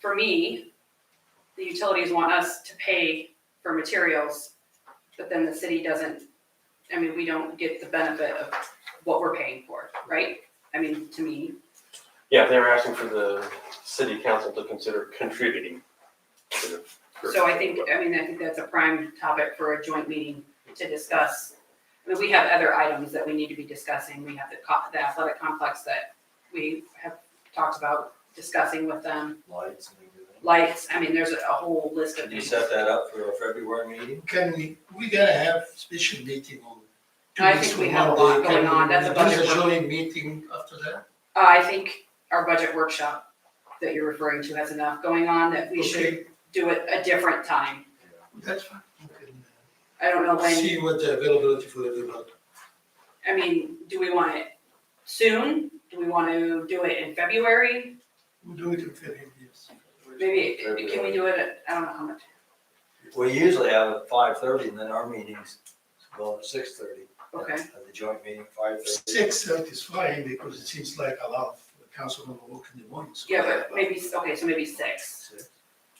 for me, the utilities want us to pay for materials, but then the city doesn't, I mean, we don't get the benefit of what we're paying for, right? I mean, to me, Yeah, they were asking for the city council to consider contributing to the. so I think, I mean, I think that's a prime topic for a joint meeting to discuss. I mean, we have other items that we need to be discussing. We have the co- the athletic complex that we have talked about discussing with them. lights and everything. Lights, I mean, there's a a whole list of Did you things. set that up for a February meeting? Can we, we gotta have special meeting on. two I weeks think we from have a Monday. lot going Can on. we That's a do budget the work. joint meeting after that? Uh, I think our budget workshop that you're referring to has enough going on that we should Okay, do it a different time. That's fine. We can, uh, I don't know when, See what the availability for everybody. I mean, do we want it soon? Do we want to do it in February? We'll do it in February, yes. Maybe, can we do it, at- I don't know how much. We usually have it at five thirty and then our meetings go at six thirty. Okay, The joint meeting, five thirty. Six thirty is fine because it seems like a lot of councilmen work in the morning. so- yeah, but maybe, okay, so maybe six.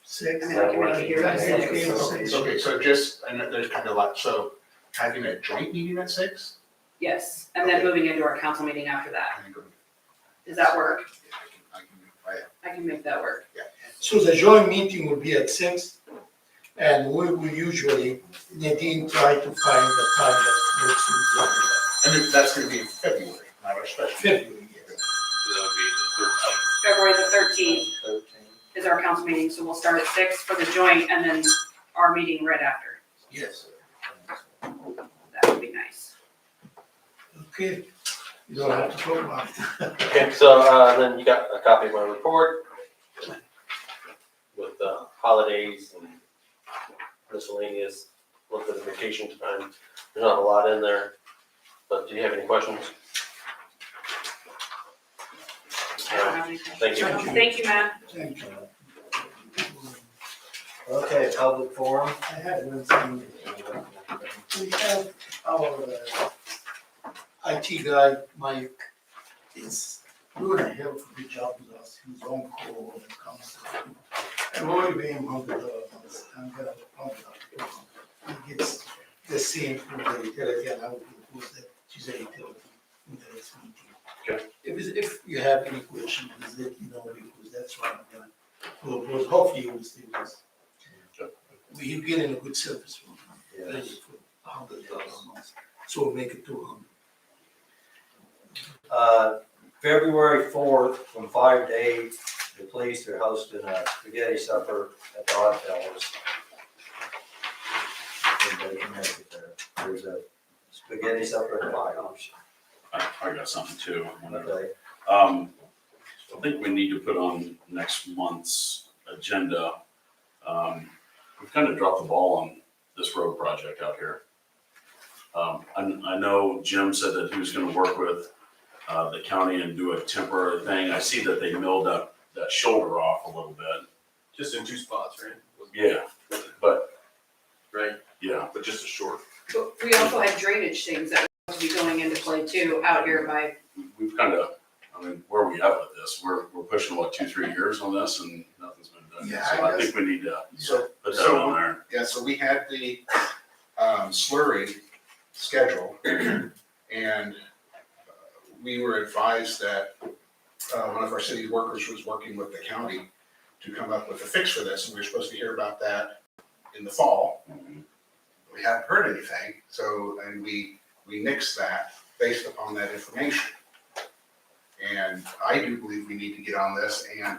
Six. I mean, I can make it here by Okay, six. six. Okay, so just, I know there's kind of a lot, so having a joint meeting at six? Yes, and then moving into our council meeting after that. I think I'm- Does that work? yeah, I can- I can- I- I can make that work. So the joint meeting will be at six, and we will usually, Nadine try to find the time that works with everybody. And it- that's gonna be in February, not our special. February, yes. February the thirteenth is our council meeting, so we'll start at six for the joint and then our meeting right after. Yes, That would be nice. okay. You don't have to talk about it. Okay, so, uh, then you got a copy of my report with, uh, holidays and miscellaneous, a little bit of vacation time. There's not a lot in there, but do you have any questions? I don't have anything. Thank you. Thank you, Matt. Thank you. Okay, public forum. I have one thing. We have our uh, IT guy, Mike, is doing a hell of a good job with us. He's on call when it comes to. And we're only paying hundred dollars. I'm gonna, I'm gonna, he gets the same from the utility and I will propose that to the utility in the next meeting. If, it's- if you have any question, please let me know because that's what I'm gonna propose. Hopefully you will see this we're getting a good service from them. Yes. A hundred dollars a month, so we'll make it two hundred. Uh, February fourth, from five to eight, the police are hosting a spaghetti supper at the Odd Fellows. Everybody can make it there. There's a spaghetti supper at five. I I got something too. I wonder. Okay, Um, I think we need to put on next month's agenda. Um, we've kind of dropped the ball on this road project out here. Um, I, I know Jim said that he was gonna work with, uh, the county and do a temporary thing. I see that they milled that, that shoulder off a little bit. Just in two spots, right? Yeah, but, Right, yeah, but just a short. But we also had drainage things that were supposed to be going into play too out here by, we've kind of, I mean, where are we at with this? We're, we're pushing, what, two, three years on this and nothing's been done. Yeah, So I I think we need to So, put that on there. yeah, so we had the um, slurry schedule and uh, we were advised that uh, one of our city workers was working with the county to come up with a fix for this and we were supposed to hear about that in the fall. we haven't heard anything, so, and we, we nixed that based upon that information. And I do believe we need to get on this, and,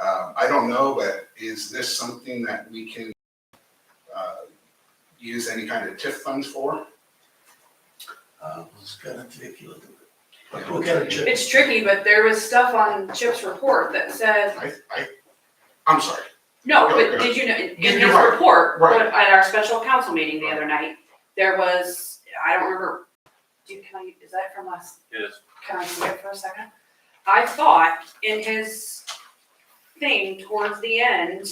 uh, I don't know, but is this something that we can, uh, use any kind of TIF funds for? Uh, It's kinda tricky a little bit. But Yeah. we'll get a check. it's tricky, but there was stuff on Chip's report that said, I, I, I'm sorry, no, but did you know, in You're his right. report, Right. at our special council meeting the other night, there was, I don't remember, do, can I, is that from last Yes. Can I see it for a second? I thought in his thing towards the end,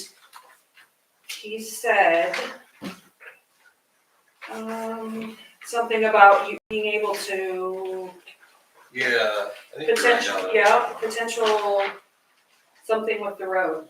he said um, something about you being able to Yeah. I think you're right potential, now. yeah, potential something with the road.